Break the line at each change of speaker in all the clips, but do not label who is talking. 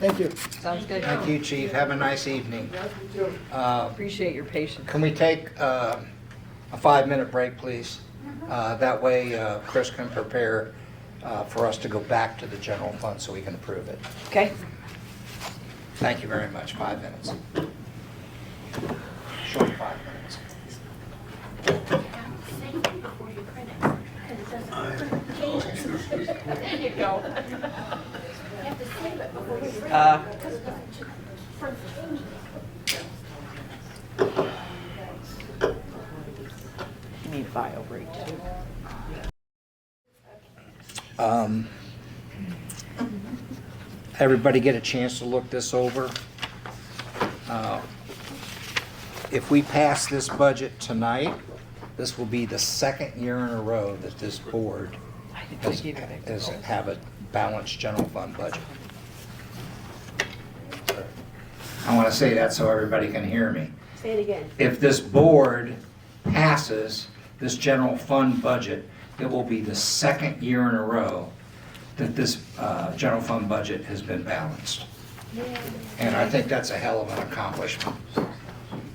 Thank you.
Sounds good.
Thank you, chief. Have a nice evening. Uh,
Appreciate your patience.
Can we take uh, a five-minute break, please? Uh, That way uh, Chris can prepare uh, for us to go back to the general fund so we can approve it.
Okay?
Thank you very much. Five minutes. Short five minutes.
Thank you before you print it, 'cause it doesn't change it. There you go. You have to save it before you print
Uh,
it, 'cause it doesn't ch- print changes.
You need file break too.
Um, Everybody get a chance to look this over. Uh, If we pass this budget tonight, this will be the second year in a row that this board
I think I
has,
gave it
has have a balanced general fund budget. I want to say that so everybody can hear me.
Say it again.
If this board passes this general fund budget, it will be the second year in a row that this uh, general fund budget has been balanced. And I think that's a hell of an accomplishment,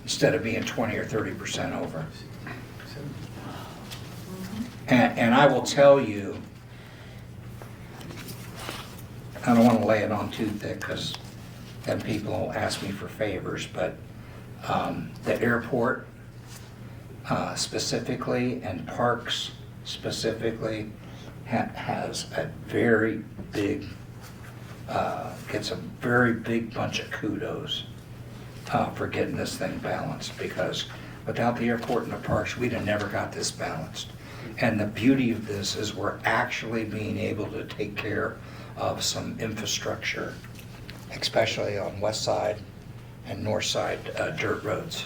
instead of being 20 or 30% over.
Mm-hmm.
And, and I will tell you, I don't want to lay it on too thick because then people will ask me for favors, but um, the airport uh, specifically and parks specifically ha- has a very big, uh, gets a very big bunch of kudos uh, for getting this thing balanced because without the airport and the parks, we'd have never got this balanced. And the beauty of this is we're actually being able to take care of some infrastructure, especially on west side and north side uh, dirt roads.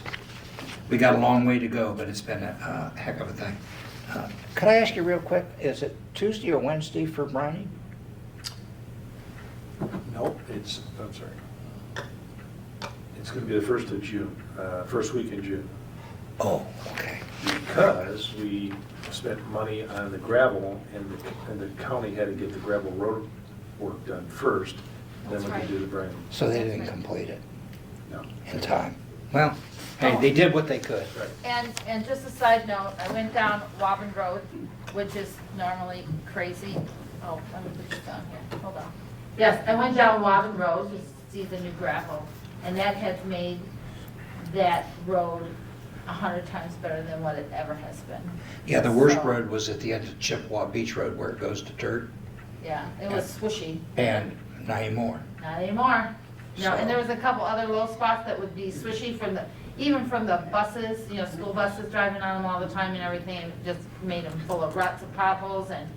We got a long way to go, but it's been a uh, heck of a thing. Uh, Could I ask you real quick, is it Tuesday or Wednesday for Browning?
Nope, it's, I'm sorry. It's gonna be the first of June, uh, first week in June,
Oh, okay.
because we spent money on the gravel, and the, and the county had to get the gravel road work done first, then we
That's
could
right.
do the brand.
So they didn't complete it
No,
in time. Well, hey, they did what they could.
right.
And, and just a side note, I went down Woburn Road, which is normally crazy. Oh, let me put this down here, hold on. Yes, I went down Woburn Road to see the new gravel, and that has made that road a hundred times better than what it ever has been.
Yeah, the worst
So,
road was at the end of Chippewa Beach Road where it goes to dirt,
Yeah, it was swishy,
and not anymore.
not anymore. No, and there was a couple other low spots that would be swishy from the, even from the buses, you know, school buses driving on them all the time and everything, and it just made them full of ruts and potholes and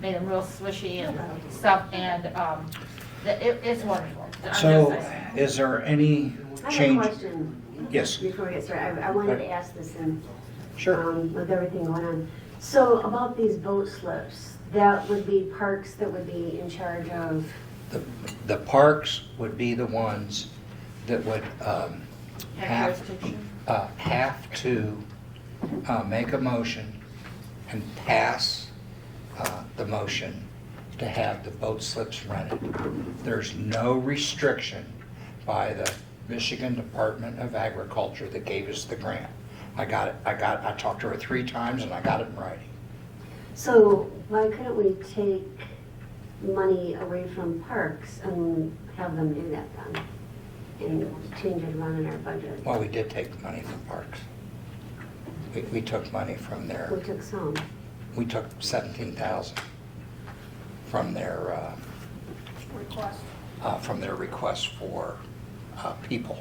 made them real swishy and stuff, and, um, the- it, it's wonderful. I'm just
So
saying.
is there any
I have a
change?
question.
Yes.
Before we get started, I I wanted to ask this in,
Sure.
um, with everything going on. So about these boat slips, that would be parks that would be in charge of,
The the parks would be the ones that would um, have, uh, have to uh, make a motion and pass uh, the motion to have the boat slips rented. There's no restriction by the Michigan Department of Agriculture that gave us the grant. I got it, I got, I talked to her three times and I got it in writing.
so why couldn't we take money away from parks and have them do that then? And change it around in our budget?
Well, we did take money from parks. We, we took money from their.
We took some.
we took seventeen thousand from their, uh,
Request.
uh, from their request for, uh, people.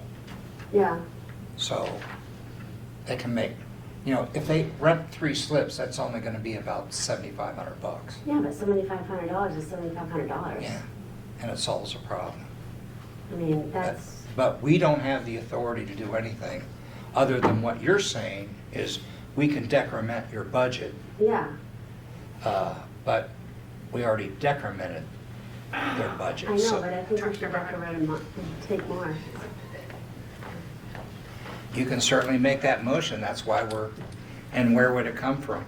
Yeah,
So they can make, you know, if they rent three slips, that's only gonna be about seventy-five hundred bucks.
yeah, but seventy-five hundred dollars is seventy-five hundred dollars.
Yeah, and it solves a problem.
I mean, that's,
But we don't have the authority to do anything other than what you're saying is we can decrement your budget,
yeah.
uh, but we already decremented their budget.
I
so-
know, but I think we should back around and mo- take more.
You can certainly make that motion, that's why we're, and where would it come from?